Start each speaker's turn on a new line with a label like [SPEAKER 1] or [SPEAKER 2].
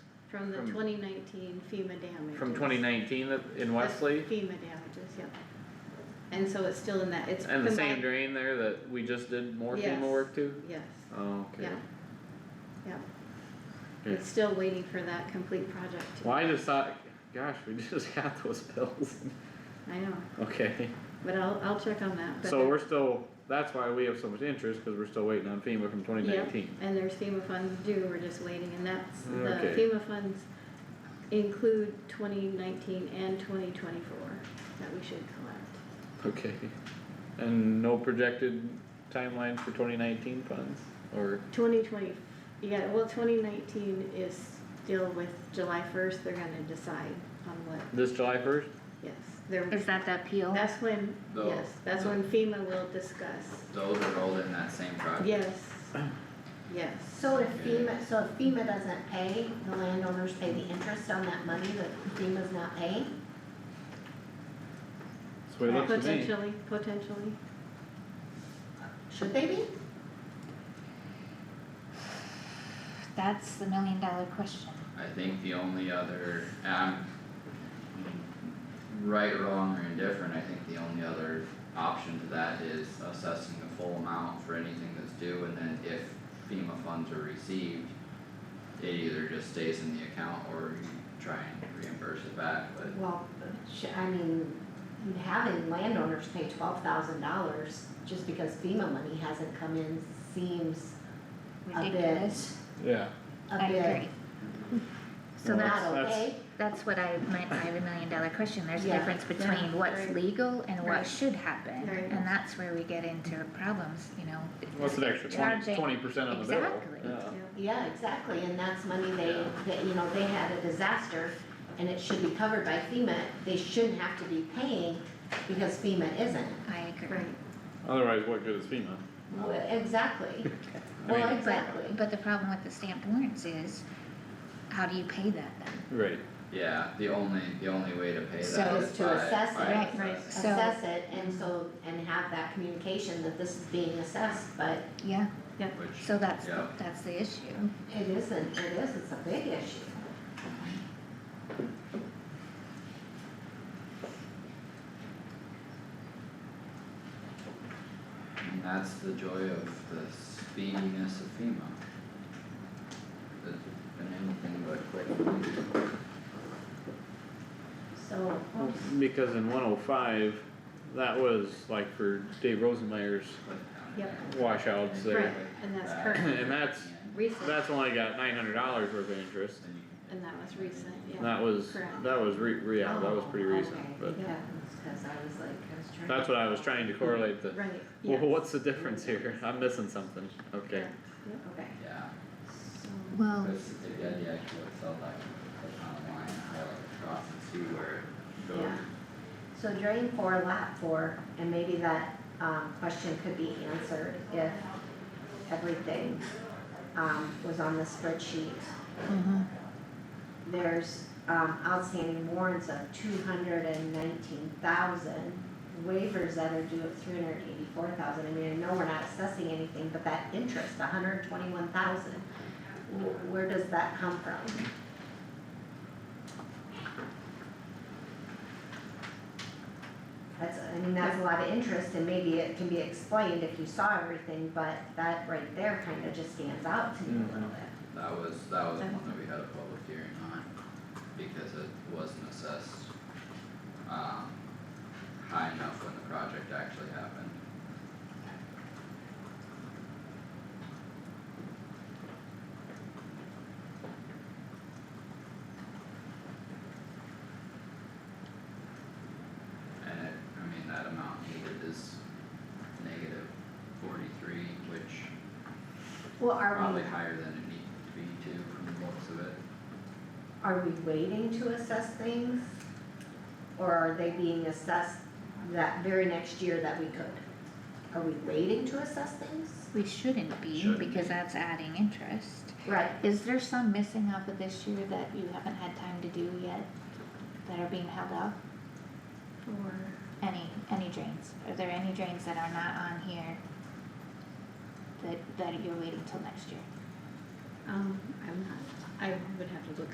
[SPEAKER 1] from the
[SPEAKER 2] From-
[SPEAKER 1] twenty nineteen FEMA damages.
[SPEAKER 2] from twenty nineteen in
[SPEAKER 1] That's
[SPEAKER 2] Wesley?
[SPEAKER 1] FEMA damages, yep. And so it's still in that, it's combined.
[SPEAKER 2] And the same drain there that we just did more
[SPEAKER 1] Yes.
[SPEAKER 2] FEMA work to?
[SPEAKER 1] Yes,
[SPEAKER 2] Oh, okay.
[SPEAKER 1] yeah, yeah.
[SPEAKER 2] Okay.
[SPEAKER 1] It's still waiting for that complete project to,
[SPEAKER 2] Well, I just thought, gosh, we just got those bills.
[SPEAKER 1] I know,
[SPEAKER 2] Okay,
[SPEAKER 1] but I'll, I'll check on that, but.
[SPEAKER 2] so we're still, that's why we have so much interest, cause we're still waiting on FEMA from twenty
[SPEAKER 1] Yeah,
[SPEAKER 2] nineteen.
[SPEAKER 1] and there's FEMA funds due, we're just waiting, and that's, the
[SPEAKER 2] Okay.
[SPEAKER 1] FEMA funds include twenty nineteen and twenty twenty-four that we should collect.
[SPEAKER 2] Okay, and no projected timeline for twenty nineteen funds, or,
[SPEAKER 1] Twenty twenty, yeah, well, twenty nineteen is still with July first, they're gonna decide on what,
[SPEAKER 2] this July first?
[SPEAKER 1] yes, they're,
[SPEAKER 3] Is that the appeal?
[SPEAKER 1] that's when,
[SPEAKER 4] No.
[SPEAKER 1] yes, that's when FEMA will discuss,
[SPEAKER 4] Those are rolled in that same project.
[SPEAKER 1] yes, yes.
[SPEAKER 5] So if FEMA, so if FEMA doesn't pay, the landowners pay the interest on that money that FEMA's not paying?
[SPEAKER 2] That's what it looks to me.
[SPEAKER 1] Potentially, potentially,
[SPEAKER 5] Should they be?
[SPEAKER 3] That's the million dollar question.
[SPEAKER 4] I think the only other, um, right, wrong, or indifferent, I think the only other option to that is assessing the full amount for anything that's due, and then if FEMA funds are received, it either just stays in the account or you try and reimburse it back, but
[SPEAKER 5] Well, sh- I mean, having landowners pay twelve thousand dollars just because FEMA money hasn't come in seems a bit,
[SPEAKER 3] Ridiculous.
[SPEAKER 2] Yeah.
[SPEAKER 5] a
[SPEAKER 3] I agree.
[SPEAKER 5] bit
[SPEAKER 3] So
[SPEAKER 2] No,
[SPEAKER 3] that's,
[SPEAKER 5] not
[SPEAKER 2] that's-
[SPEAKER 5] okay.
[SPEAKER 3] that's what I meant by the million dollar question. There's a
[SPEAKER 5] Yeah,
[SPEAKER 3] difference
[SPEAKER 1] yeah,
[SPEAKER 3] between what's
[SPEAKER 1] right.
[SPEAKER 3] legal and
[SPEAKER 1] Right.
[SPEAKER 3] what should happen.
[SPEAKER 1] Right.
[SPEAKER 3] And that's where we get into problems, you know.
[SPEAKER 2] What's an extra
[SPEAKER 3] Charging-
[SPEAKER 2] twenty, twenty percent on the bill?
[SPEAKER 3] Exactly.
[SPEAKER 2] Yeah.
[SPEAKER 1] yeah.
[SPEAKER 5] Yeah, exactly, and that's money they, that, you know, they had a disaster and it should be covered by FEMA, they shouldn't have to be paying because FEMA isn't.
[SPEAKER 3] I agree.
[SPEAKER 1] right,
[SPEAKER 2] Otherwise, what good is FEMA?
[SPEAKER 5] Well, Exactly,
[SPEAKER 2] I
[SPEAKER 5] well,
[SPEAKER 2] mean-
[SPEAKER 5] exactly.
[SPEAKER 3] But, but the problem with the stamped warrants is, how do you pay that then?
[SPEAKER 2] Right.
[SPEAKER 4] yeah, the only, the only way to pay
[SPEAKER 3] So-
[SPEAKER 4] that
[SPEAKER 5] Is
[SPEAKER 4] is
[SPEAKER 5] to
[SPEAKER 4] by,
[SPEAKER 5] assess it.
[SPEAKER 4] by
[SPEAKER 3] Right,
[SPEAKER 1] right.
[SPEAKER 4] assessing.
[SPEAKER 3] So-
[SPEAKER 5] assess it and so, and have that communication that this is being assessed, but
[SPEAKER 3] Yeah,
[SPEAKER 4] Which,
[SPEAKER 3] so that's,
[SPEAKER 4] Yeah.
[SPEAKER 3] that's the issue.
[SPEAKER 5] it isn't, it is, it's a big issue.
[SPEAKER 4] And that's the joy of the speediness of FEMA. That's been anything but quick.
[SPEAKER 5] So, oops,
[SPEAKER 2] Because in one oh five, that was like for Dave Rosenmeyer's
[SPEAKER 1] Yep.
[SPEAKER 2] washouts
[SPEAKER 1] right,
[SPEAKER 2] there.
[SPEAKER 1] and that's
[SPEAKER 4] Back.
[SPEAKER 1] current,
[SPEAKER 2] And that's,
[SPEAKER 1] recent,
[SPEAKER 2] that's only got nine hundred dollars worth of interest.
[SPEAKER 4] Then you can-
[SPEAKER 1] and that was recent,
[SPEAKER 2] And
[SPEAKER 1] yeah,
[SPEAKER 2] That was,
[SPEAKER 1] Correct.
[SPEAKER 2] that was re, re- yeah, that was pretty
[SPEAKER 5] Oh,
[SPEAKER 2] recent,
[SPEAKER 5] okay.
[SPEAKER 2] but
[SPEAKER 5] yeah, it's cause I was like, I was trying.
[SPEAKER 2] that's what I was trying to correlate the,
[SPEAKER 1] right,
[SPEAKER 2] well,
[SPEAKER 1] yes.
[SPEAKER 2] what's the difference here? I'm missing something, okay.
[SPEAKER 1] Yeah.
[SPEAKER 5] Okay,
[SPEAKER 4] Yeah,
[SPEAKER 5] so,
[SPEAKER 1] Oh.
[SPEAKER 3] Well,
[SPEAKER 4] but it's a good idea to sell that, click on the line, highlight across and see where it goes.
[SPEAKER 5] Yeah. so drain four, lap four, and maybe that, um, question could be answered if everything, um, was on the spreadsheet.
[SPEAKER 3] mhm,
[SPEAKER 5] there's um outstanding warrants of two hundred and nineteen thousand. Waivers that are due of three hundred and eighty-four thousand, I mean, I know we're not assessing anything, but that interest, a hundred and twenty-one thousand. Where does that come from? That's, I mean, that's a lot of interest and maybe it can be explained if you saw everything, but that right there kinda just stands out to me a
[SPEAKER 2] Mhm.
[SPEAKER 5] little bit.
[SPEAKER 4] That was, that was
[SPEAKER 1] Okay.
[SPEAKER 4] one that we had a public hearing on, because it wasn't assessed, um, high enough when the project actually happened. And it, I mean, that amount needed is negative forty-three, which
[SPEAKER 5] Well, are we?
[SPEAKER 4] Probably higher than it needs to be too, from the looks of it.
[SPEAKER 5] Are we waiting to assess things? Or are they being assessed that very next year that we could? Are we waiting to assess things?
[SPEAKER 3] we shouldn't be,
[SPEAKER 4] Shouldn't be.
[SPEAKER 3] because that's adding interest.
[SPEAKER 5] Right,
[SPEAKER 3] Is there some missing off of this year that you haven't had time to do yet, that are being held up?
[SPEAKER 1] Or-
[SPEAKER 3] Any, any drains, are there any drains that are not on here? That, that you're waiting till next year?
[SPEAKER 1] Um, I'm not, I would have to look